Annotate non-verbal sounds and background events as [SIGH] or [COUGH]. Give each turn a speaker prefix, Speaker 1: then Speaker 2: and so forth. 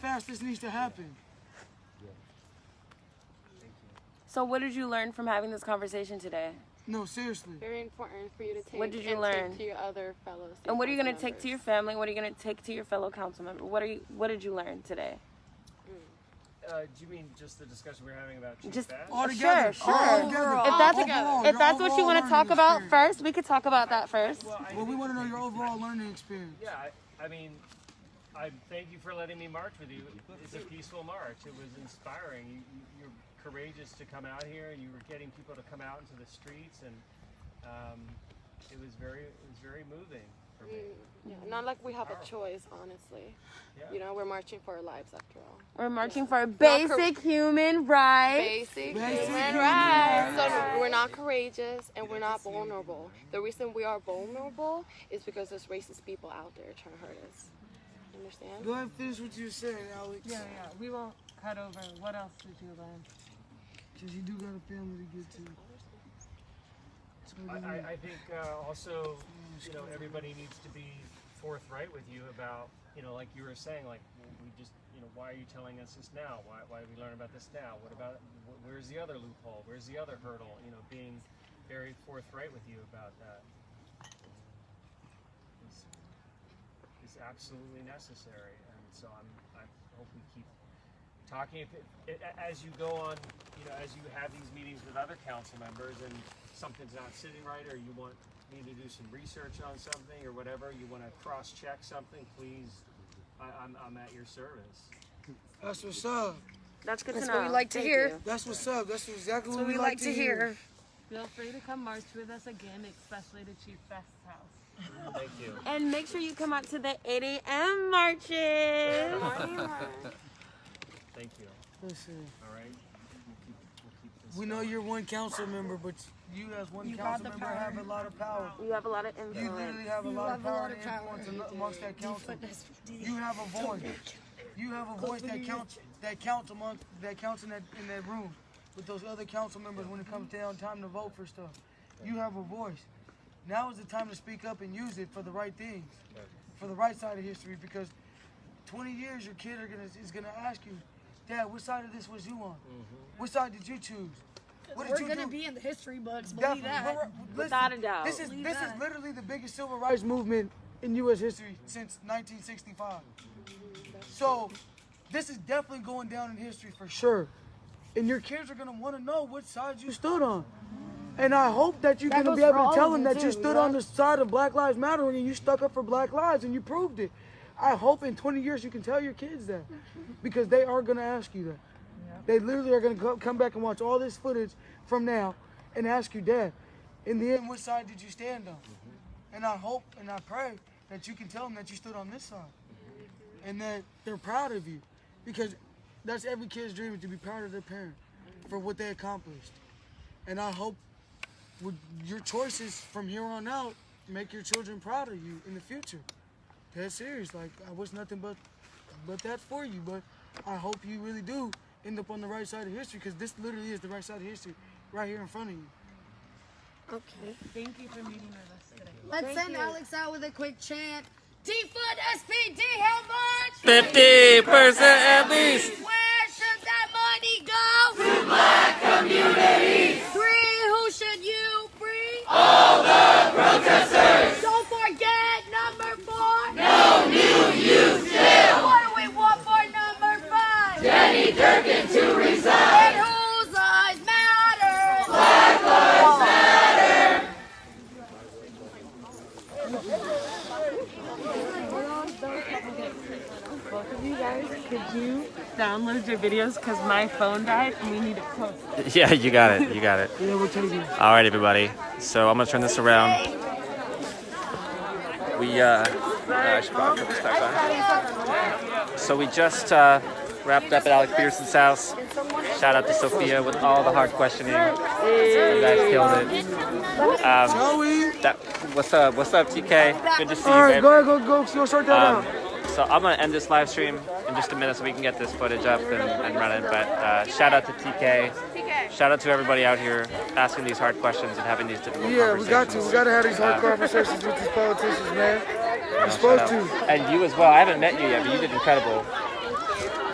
Speaker 1: fast this needs to happen.
Speaker 2: So, what did you learn from having this conversation today?
Speaker 1: No, seriously.
Speaker 3: Very important for you to take.
Speaker 2: What did you
Speaker 3: and
Speaker 2: learn?
Speaker 3: Take to your other fellows.
Speaker 2: And what are you going to take to your family? What are you going to take to your fellow council member? What are you? What did you learn today?
Speaker 4: Uh, do you mean just the discussion we were having about Chief
Speaker 2: Just-
Speaker 4: Bass?
Speaker 1: All
Speaker 2: Sure,
Speaker 1: together.
Speaker 2: sure.
Speaker 1: All together.
Speaker 5: Oh,
Speaker 3: Overall.
Speaker 2: If that's
Speaker 1: Overall,
Speaker 2: if
Speaker 1: your
Speaker 2: that's what you
Speaker 1: overall
Speaker 2: want to talk
Speaker 1: learning
Speaker 2: about
Speaker 1: experience.
Speaker 2: first, we could talk about that first.
Speaker 4: Well, I
Speaker 1: Well, we
Speaker 4: think-
Speaker 1: want to know your overall learning experience.
Speaker 4: Yeah, I, I mean, I thank you for letting me march with you. It's a peaceful march. It was inspiring. You, you, you're courageous to come out here, and you were getting people to come out into the streets, and um, it was very, it was very moving for me.
Speaker 3: Yeah, not like we have a choice, honestly.
Speaker 4: Yeah.
Speaker 3: You know, we're marching for our lives after all.
Speaker 2: We're marching for
Speaker 3: Not cor-
Speaker 2: basic human rights.
Speaker 3: Basic
Speaker 1: Basic
Speaker 3: human
Speaker 1: human
Speaker 3: rights. So we're not courageous and we're not vulnerable. The reason we are vulnerable is because there's racist people out there trying to hurt us. Understand?
Speaker 1: Go ahead and finish what you were saying, Alex.
Speaker 5: Yeah, yeah. We won't cut over. What else did you learn?
Speaker 1: Because you do got a family to get to.
Speaker 4: I, I, I think uh, also, you know, everybody needs to be forthright with you about, you know, like you were saying, like we just, you know, why are you telling us this now? Why, why did we learn about this now? What about wh- where's the other loophole? Where's the other hurdle? You know, being very forthright with you about that is, is absolutely necessary, and so I'm I hope we keep talking if it, it, as you go on you know as you have these meetings with other council members and something's not sitting right or you want me to do some research on something or whatever you want to cross-check something please I, I'm, I'm at your service
Speaker 1: That's what's up.
Speaker 2: That's good
Speaker 6: That's
Speaker 2: to know.
Speaker 6: what we like to
Speaker 2: Thank
Speaker 6: hear.
Speaker 2: you.
Speaker 1: That's what's up. That's exactly
Speaker 6: That's
Speaker 1: what we, like, to hear.
Speaker 5: Feel free to come march with us again, especially to Chief Best's house.
Speaker 4: thank you
Speaker 2: And make sure you come out to the 8 a.m. marches.
Speaker 4: thank you
Speaker 1: Listen,
Speaker 4: all right we'll keep, we'll keep this
Speaker 1: we know
Speaker 4: going.
Speaker 1: you're one council member, but you as one council member have a lot of power.
Speaker 2: You have a lot of
Speaker 1: You
Speaker 2: influence.
Speaker 1: literally have a lot of
Speaker 6: have a
Speaker 1: power
Speaker 6: lot
Speaker 1: and
Speaker 6: of power.
Speaker 1: influence among- amongst that council. You have a voice. You have a voice that counts. That counts among that counts in that in that room with those other council members when it comes down time to vote for stuff. You have a voice. Now is the time to speak up and use it for the right things, for the right side of history. Because 20 years, your kid are gonna is gonna ask you, Dad, what side of this was you on? Which side did you choose? What did
Speaker 6: We're
Speaker 1: you
Speaker 6: gonna
Speaker 1: do?
Speaker 6: be in the history books. Believe
Speaker 1: Definitely.
Speaker 6: that.
Speaker 1: We're- we're- listen,
Speaker 2: Without a doubt.
Speaker 1: This is
Speaker 6: Believe
Speaker 1: this is
Speaker 6: that.
Speaker 1: literally the biggest civil rights movement in U.S. history since 1965. So, this is definitely going down in history for sure. And your kids are gonna want to know which side you stood on. And I hope that you're
Speaker 6: That
Speaker 1: gonna be
Speaker 6: goes for
Speaker 1: able
Speaker 6: all
Speaker 1: to tell
Speaker 6: of
Speaker 1: them
Speaker 6: them
Speaker 1: that you
Speaker 6: too,
Speaker 1: stood
Speaker 6: yeah.
Speaker 1: on the side of Black Lives Matter and you stuck up for Black lives and you proved it. I hope in 20 years you can tell your kids
Speaker 6: [LAUGHS]
Speaker 1: that because they are gonna ask you that. They literally are gonna go, come back and watch all this footage from now and ask you, Dad, in the end, which side did you stand on?
Speaker 6: Mm-hmm.
Speaker 1: And I hope and I pray that you can tell them that you stood on this side
Speaker 6: Mm-hmm.
Speaker 1: and that they're proud of you because that's every kid's dream is to be proud of their parent for what they accomplished. And I hope with your choices from here on out make your children proud of you in the future. That's serious. Like I wish nothing but but that for you. But I hope you really do end up on the right side of history because this literally is the right side of history right here in front of you.
Speaker 6: Okay.
Speaker 5: Thank you for meeting with us today.
Speaker 6: Let's send Alex out with a quick chant. Defund SPD. How much?
Speaker 7: 50 percent at least.
Speaker 6: Where should that money go? To black communities. Three, who should you free? All the protesters. Don't forget number four. No new youth jail. What do we want for number five? Jenny Durkin to resign. And whose lives matter?
Speaker 5: Both of you guys, could you download your videos? Because my phone died and we need it posted.
Speaker 7: Yeah, you got it. You got it. All right, everybody. So I'm gonna turn this around. We uh, I should probably put this back on. So we just uh, wrapped up at Alec Peterson's house. Shout out to Sophia with all the hard questioning. You guys killed it. Um,
Speaker 1: Joey!
Speaker 7: that, what's up? What's up, TK? Good to see you,
Speaker 1: Alright,
Speaker 7: babe.
Speaker 1: go ahead, go go go sort that
Speaker 7: Um,
Speaker 1: out.
Speaker 7: so I'm gonna end this live stream in just a minute so we can get this footage up and, and run it. But uh, shout out to TK. Shout out to everybody out here asking these hard questions and having these difficult
Speaker 1: Yeah, we
Speaker 7: conversations.
Speaker 1: got to. We gotta have these hard conversations with these politicians, man. We're
Speaker 7: uh, Shout
Speaker 1: supposed
Speaker 7: out.
Speaker 1: to.
Speaker 7: And you as well. I haven't met you yet, but you did incredible.